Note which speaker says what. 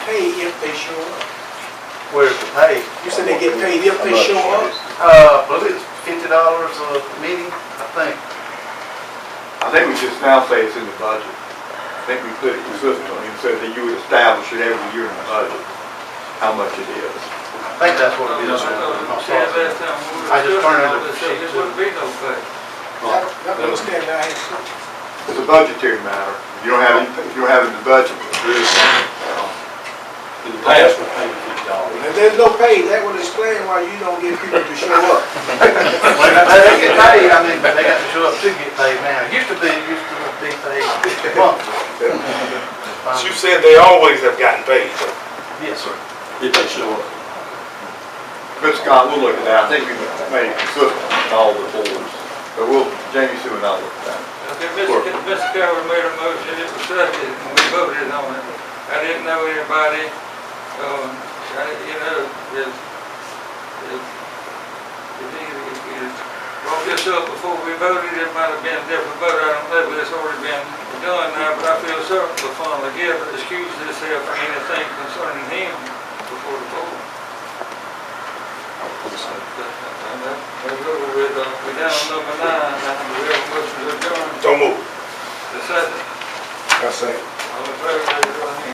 Speaker 1: paid if they show up.
Speaker 2: Where's the pay?
Speaker 1: You said they get paid if they show up?
Speaker 2: Uh, I believe it's fifty dollars a meeting, I think.
Speaker 3: I think we just now say it's in the budget. I think we put it consistently, and said that you would establish it every year in the budget, how much it is.
Speaker 2: I think that's what it is. I just turned it over to
Speaker 4: There
Speaker 2: sheet two.
Speaker 4: wouldn't be no pay.
Speaker 1: I don't understand that.
Speaker 3: It's a budgetary matter. If you don't have, it- if you don't have it in the budget,
Speaker 5: In the past, we paid fifty dollars.
Speaker 1: If there's no pay, that would explain why you don't get people to show up.
Speaker 2: When they get paid, I mean, they got to show up to get paid now. It used to be, it used to be paid monthly.
Speaker 6: But you said they always have gotten paid.
Speaker 2: Yes, sir.
Speaker 5: If they show up,
Speaker 3: But Scott, we'll look at that. I think we made it consistent in all the boards. But we'll, Jamie Sue and I will look at that.
Speaker 4: Okay, Mr. Ca- Mr. Carroll made a motion, it was seconded, and we voted on it. I didn't know anybody, um, I, you know, is, is, is he, is, brought this up before we voted, it might have been a different vote, I don't know, but it's already been done now, but I feel certain the fund will give, excuse himself for anything concerning him before the vote. That's over with, uh, we down to number nine, now, do we have a motion to adjourn.
Speaker 6: Don't move.
Speaker 4: The second.
Speaker 1: I say.
Speaker 4: All in favor, raise your right hand.